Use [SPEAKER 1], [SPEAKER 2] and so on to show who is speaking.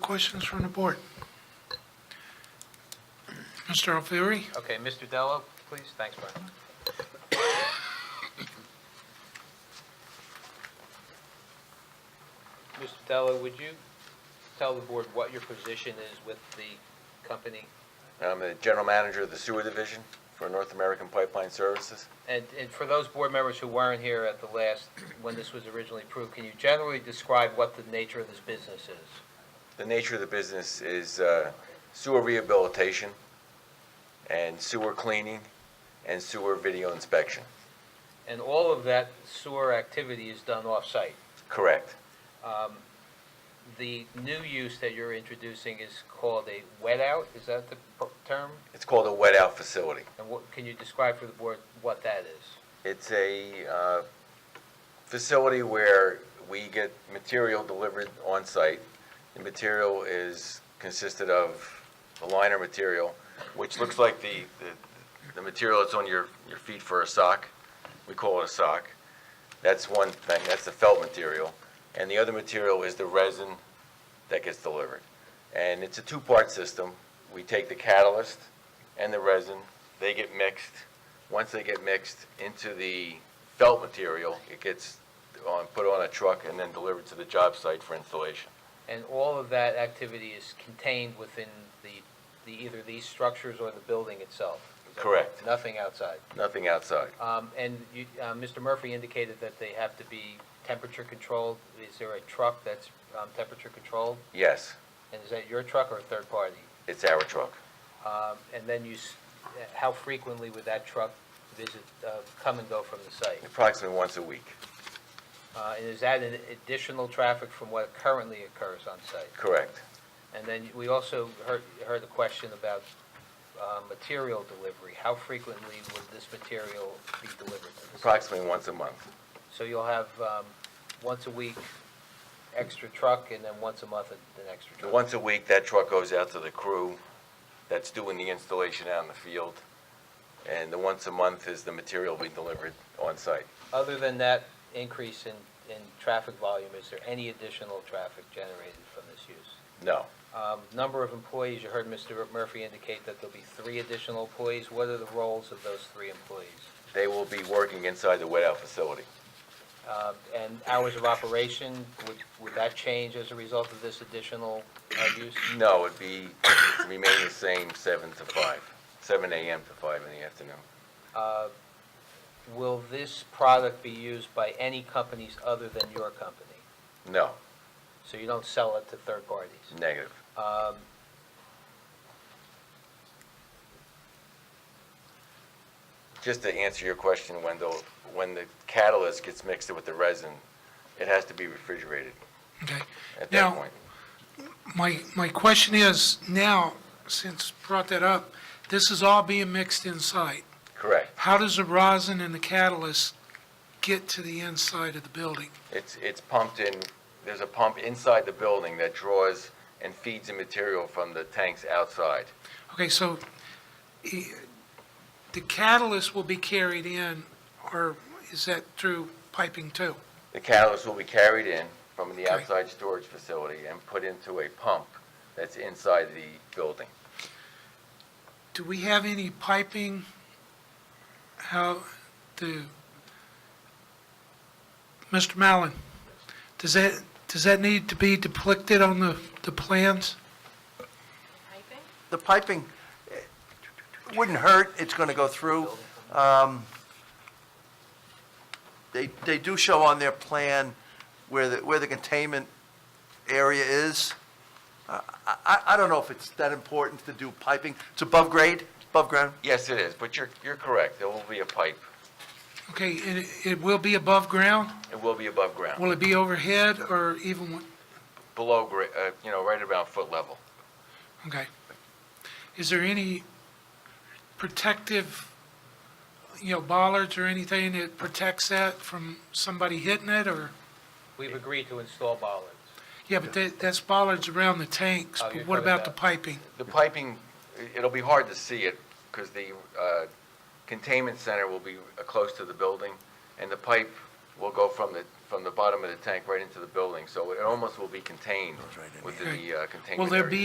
[SPEAKER 1] questions from the board? Mr. Alfieri?
[SPEAKER 2] Okay, Mr. Dello, please, thanks, Brian. Mr. Dello, would you tell the board what your position is with the company?
[SPEAKER 3] I'm the general manager of the sewer division for North American Pipeline Services.
[SPEAKER 2] And, and for those board members who weren't here at the last, when this was originally approved, can you generally describe what the nature of this business is?
[SPEAKER 3] The nature of the business is uh, sewer rehabilitation and sewer cleaning and sewer video inspection.
[SPEAKER 2] And all of that sewer activity is done off-site?
[SPEAKER 3] Correct.
[SPEAKER 2] Um, The new use that you're introducing is called a wet out, is that the pro- term?
[SPEAKER 3] It's called a wet out facility.
[SPEAKER 2] And what, can you describe for the board what that is?
[SPEAKER 3] It's a uh, facility where we get material delivered on site. The material is consisted of the liner material, which looks like the, the- the material that's on your, your feet for a sock. We call it a sock. That's one thing, that's the felt material. And the other material is the resin that gets delivered. And it's a two-part system. We take the catalyst and the resin, they get mixed. Once they get mixed into the felt material, it gets on, put on a truck and then delivered to the job site for installation.
[SPEAKER 2] And all of that activity is contained within the, the, either these structures or the building itself? Is that
[SPEAKER 3] Correct.
[SPEAKER 2] Nothing outside?
[SPEAKER 3] Nothing outside.
[SPEAKER 2] Um, And you, uh, Mr. Murphy indicated that they have to be temperature controlled. Is there a truck that's um, temperature controlled?
[SPEAKER 3] Yes,
[SPEAKER 2] And is that your truck or a third party?
[SPEAKER 3] it's our truck.
[SPEAKER 2] Um, And then you, s- how frequently would that truck visit, uh, come and go from the site?
[SPEAKER 3] Approximately once a week.
[SPEAKER 2] Uh, And is that an additional traffic from what currently occurs on site?
[SPEAKER 3] Correct.
[SPEAKER 2] And then we also heard, heard the question about uh, material delivery. How frequently would this material be delivered to the site?
[SPEAKER 3] Approximately once a month.
[SPEAKER 2] So you'll have um, once a week extra truck, and then once a month uh, an an extra
[SPEAKER 3] The
[SPEAKER 2] truck?
[SPEAKER 3] Once a week, that truck goes out to the crew that's doing the installation out in the field. And the once a month is the material being delivered on site.
[SPEAKER 2] Other than that increase in, in traffic volume, is there any additional traffic generated from this use?
[SPEAKER 3] No.
[SPEAKER 2] Um, Number of employees, you heard Mr. Murphy indicate that there'll be three additional employees. What are the roles of those three employees?
[SPEAKER 3] They will be working inside the wet out facility.
[SPEAKER 2] Um, And hours of operation, would, would that change as a result of this additional uh, use?
[SPEAKER 3] No, it'd be, remain the same, seven to five, seven AM to five in the afternoon.
[SPEAKER 2] Uh, Will this product be used by any companies other than your company?
[SPEAKER 3] No,
[SPEAKER 2] So you don't sell it to third parties?
[SPEAKER 3] negative.
[SPEAKER 2] Um,
[SPEAKER 3] Just to answer your question, Wendell, when the catalyst gets mixed with the resin, it has to be refrigerated
[SPEAKER 1] Okay.
[SPEAKER 3] at that
[SPEAKER 1] Now-
[SPEAKER 3] point.
[SPEAKER 1] My, my question is, now, since brought that up, this is all being mixed inside.
[SPEAKER 3] Correct.
[SPEAKER 1] How does the rosin and the catalyst get to the inside of the building?
[SPEAKER 3] It's, it's pumped in, there's a pump inside the building that draws and feeds the material from the tanks outside.
[SPEAKER 1] Okay, so eh, the catalyst will be carried in, or is that through piping too?
[SPEAKER 3] The catalyst will be carried in from the
[SPEAKER 1] Okay.
[SPEAKER 3] outside storage facility and put into a pump that's inside the building.
[SPEAKER 1] Do we have any piping, how, the, Mr. Mallon, does that, does that need to be depicted on the, the plans?
[SPEAKER 4] The piping eh, wouldn't hurt, it's going to go through. Um, They, they do show on their plan where the, where the containment area is. Uh, I, I- I don't know if it's that important to do piping. It's above grade, above ground.
[SPEAKER 3] Yes, it is, but you're, you're correct, there will be a pipe.
[SPEAKER 1] Okay, and it, it will be above ground?
[SPEAKER 3] It will be above ground,
[SPEAKER 1] Will it be overhead or even, what-
[SPEAKER 3] below, gra- uh, you know, right about foot level.
[SPEAKER 1] okay. Is there any protective, you know, bollards or anything that protects that from somebody hitting it or?
[SPEAKER 2] We've agreed to install bollards.
[SPEAKER 1] Yeah, but that, that's bollards around the tanks,
[SPEAKER 2] Oh,
[SPEAKER 1] but
[SPEAKER 2] you're
[SPEAKER 1] what
[SPEAKER 2] talking
[SPEAKER 1] about the
[SPEAKER 2] about-
[SPEAKER 1] piping?
[SPEAKER 3] The piping, i- it'll be hard to see it because the uh, containment center will be uh, close to the building and the pipe will go from the, from the bottom of the tank right into the building, so it almost will be contained
[SPEAKER 4] Goes right in
[SPEAKER 3] within the uh, containment
[SPEAKER 1] Will there
[SPEAKER 3] area.
[SPEAKER 1] be